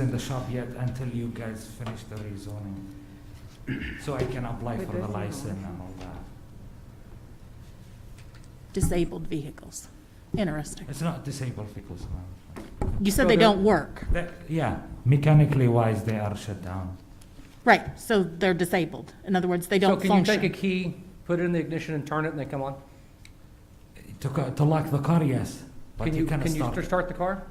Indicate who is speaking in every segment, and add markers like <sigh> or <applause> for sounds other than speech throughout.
Speaker 1: in the shop yet until you guys finish the
Speaker 2: <clears throat>
Speaker 1: rezoning. So I can apply
Speaker 3: We're
Speaker 1: for the
Speaker 3: doing all
Speaker 1: license
Speaker 3: that.
Speaker 1: and all that.
Speaker 4: disabled vehicles. Interesting.
Speaker 1: It's not disabled vehicles, ma'am.
Speaker 4: You
Speaker 3: So
Speaker 4: said they
Speaker 3: they're-
Speaker 4: don't work.
Speaker 1: That- yeah, mechanically wise, they are shut down.
Speaker 4: Right, so they're disabled. In other words, they don't
Speaker 2: So can you take a
Speaker 4: function.
Speaker 2: key, put it in the ignition and turn it and they come on?
Speaker 1: To, co- to lock the car, yes, but
Speaker 2: Can
Speaker 1: you
Speaker 2: you,
Speaker 1: cannot
Speaker 2: can you
Speaker 1: start.
Speaker 2: st- start the car?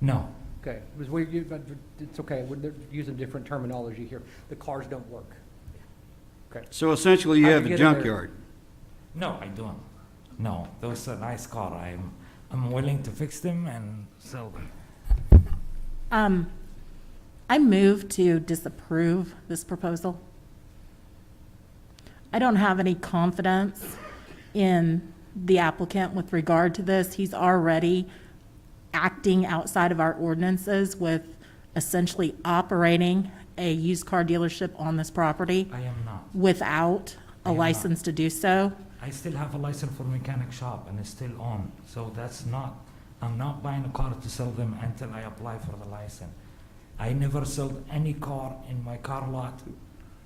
Speaker 1: No,
Speaker 2: Okay, it was weird, you- but it's okay, we're they're using different terminology here. The cars don't work.
Speaker 5: So essentially, you
Speaker 2: How'd
Speaker 5: have
Speaker 2: you
Speaker 5: a
Speaker 2: get in there?
Speaker 5: junkyard.
Speaker 1: no, I don't. No, those are nice car. I'm, I'm willing to fix them and sell them.
Speaker 4: Um, I move to disapprove this proposal. I don't have any confidence in the applicant with regard to this. He's already acting outside of our ordinances with essentially operating a used car dealership on this property
Speaker 1: I am not.
Speaker 4: without
Speaker 1: I
Speaker 4: a
Speaker 1: am not.
Speaker 4: license to do so.
Speaker 1: I still have a license for mechanic shop and it's still on, so that's not, I'm not buying a car to sell them until I apply for the license. I never sold any car in my car lot,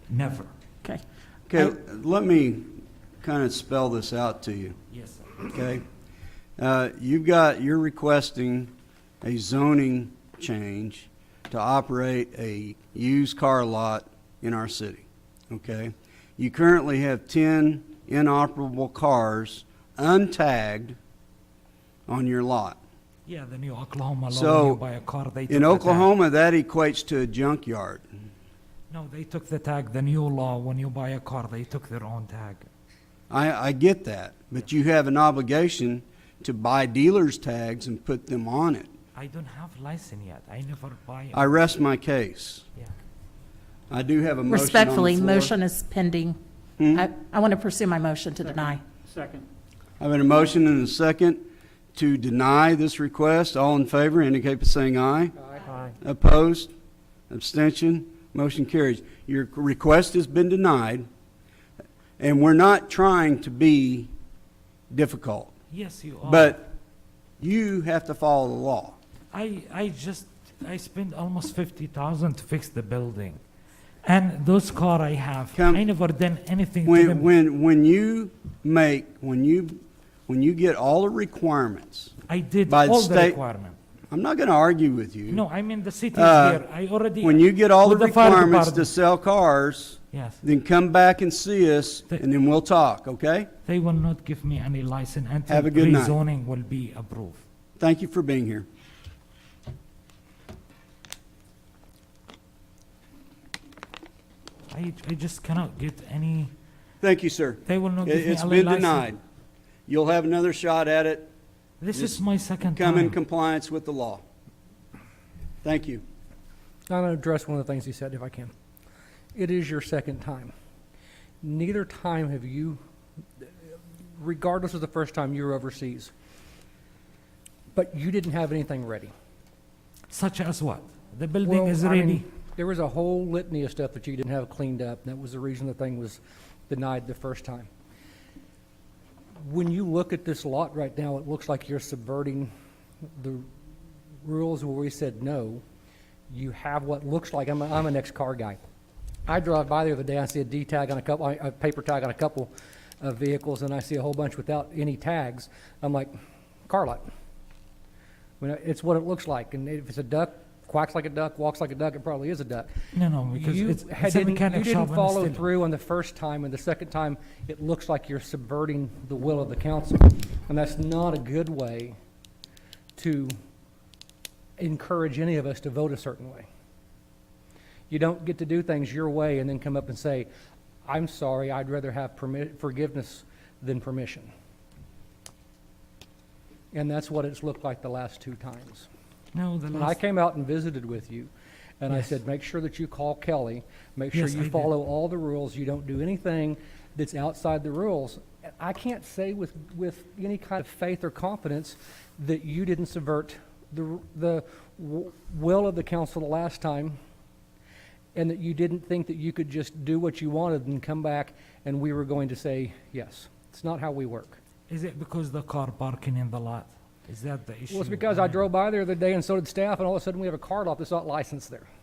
Speaker 1: never,
Speaker 4: Okay.
Speaker 5: Okay, let me kind of spell this out to you,
Speaker 1: yes, sir.
Speaker 5: okay? Uh, You've got, you're requesting a zoning change to operate a used car lot in our city, okay? You currently have 10 inoperable cars untagged on your lot.
Speaker 1: Yeah, the new Oklahoma law, when you
Speaker 5: So,
Speaker 1: buy a car, they took
Speaker 5: In
Speaker 1: the tag.
Speaker 5: Oklahoma, that equates to a junkyard.
Speaker 1: No, they took the tag, the new law, when you buy a car, they took their own tag.
Speaker 5: I, I get that, but you have an obligation to buy dealer's tags and put them on it.
Speaker 1: I don't have license yet, I never buy,
Speaker 5: I rest my case.
Speaker 1: yeah.
Speaker 5: I do have a motion on the
Speaker 4: Respectfully,
Speaker 5: floor.
Speaker 4: motion is pending. I, I want to pursue my motion to deny.
Speaker 6: Second.
Speaker 5: I have a motion and a second to deny this request. All in favor indicate by saying aye.
Speaker 2: Aye.
Speaker 5: Opposed? Abstention? Motion carries. Your request has been denied, and we're not trying to be difficult,
Speaker 1: Yes, you are.
Speaker 5: but you have to follow the law.
Speaker 1: I, I just, I spent almost fifty thousand to fix the building. And those car I have,
Speaker 5: Come-
Speaker 1: I never done anything to
Speaker 5: When,
Speaker 1: them.
Speaker 5: when, when you make, when you, when you get all the requirements,
Speaker 1: I did
Speaker 5: by the
Speaker 1: all the
Speaker 5: state-
Speaker 1: requirement.
Speaker 5: I'm not gonna argue with you.
Speaker 1: No, I mean, the city is
Speaker 5: Uh,
Speaker 1: here, I already.
Speaker 5: When you get all the
Speaker 1: with fire
Speaker 5: requirements to
Speaker 1: department.
Speaker 5: sell cars,
Speaker 1: Yes,
Speaker 5: then come back and see us,
Speaker 1: Th-
Speaker 5: and then we'll talk, okay?
Speaker 1: they will not give me any license until.
Speaker 5: Have a good night.
Speaker 1: Rezoning will be approved.
Speaker 5: Thank you for being here.
Speaker 1: I, I just cannot get any,
Speaker 5: Thank you, sir.
Speaker 1: they will not
Speaker 5: It-
Speaker 1: give me any
Speaker 5: It's
Speaker 1: license.
Speaker 5: been denied. You'll have another shot at it.
Speaker 1: This is
Speaker 5: Just
Speaker 1: my second
Speaker 5: Come in
Speaker 1: time.
Speaker 5: compliance with the law. Thank you.
Speaker 2: I'm going to address one of the things he said, if I can. It is your second time. Neither time have you, regardless of the first time you were overseas, but you didn't have anything ready.
Speaker 1: Such as what? The building
Speaker 2: Well,
Speaker 1: is
Speaker 2: I mean,
Speaker 1: ready.
Speaker 2: There was a whole litany of stuff that you didn't have cleaned up, and that was the reason the thing was denied the first time. When you look at this lot right now, it looks like you're subverting the rules where we said no. You have what looks like, I'm, a am an ex-car guy. I drive by there the other day, I see a D tag on a couple, a paper tag on a couple of vehicles, and I see a whole bunch without any tags. I'm like, car lot. I mean, it's what it looks like, and if it's a duck, quacks like a duck, walks like a duck, it probably is a duck.
Speaker 1: No, no, because
Speaker 2: You
Speaker 1: it's,
Speaker 2: had-
Speaker 1: it's a
Speaker 2: didn't-
Speaker 1: mechanic
Speaker 2: You
Speaker 1: shop and
Speaker 2: didn't
Speaker 1: it's
Speaker 2: follow
Speaker 1: still-
Speaker 2: through on the first time, and the second time, it looks like you're subverting the will of the council. And that's not a good way to encourage any of us to vote a certain way. You don't get to do things your way and then come up and say, I'm sorry, I'd rather have permi- forgiveness than permission. And that's what it's looked like the last two times.
Speaker 1: No, the
Speaker 2: When I
Speaker 1: last,
Speaker 2: came out and visited with you, and I
Speaker 1: Yes.
Speaker 2: said, make sure that you call Kelly, make sure
Speaker 1: Yes, I
Speaker 2: you
Speaker 1: did.
Speaker 2: follow all the rules, you don't do anything that's outside the rules. I can't say with, with any kind of faith or confidence that you didn't subvert the, r- the w- will of the council the last time, and that you didn't think that you could just do what you wanted and come back, and we were going to say yes. It's not how we work.
Speaker 1: is it because the car parking in the lot? Is that the issue?
Speaker 2: Well, it's because I drove by there the other day and so did staff, and all of a sudden we have a car lot that's not licensed there.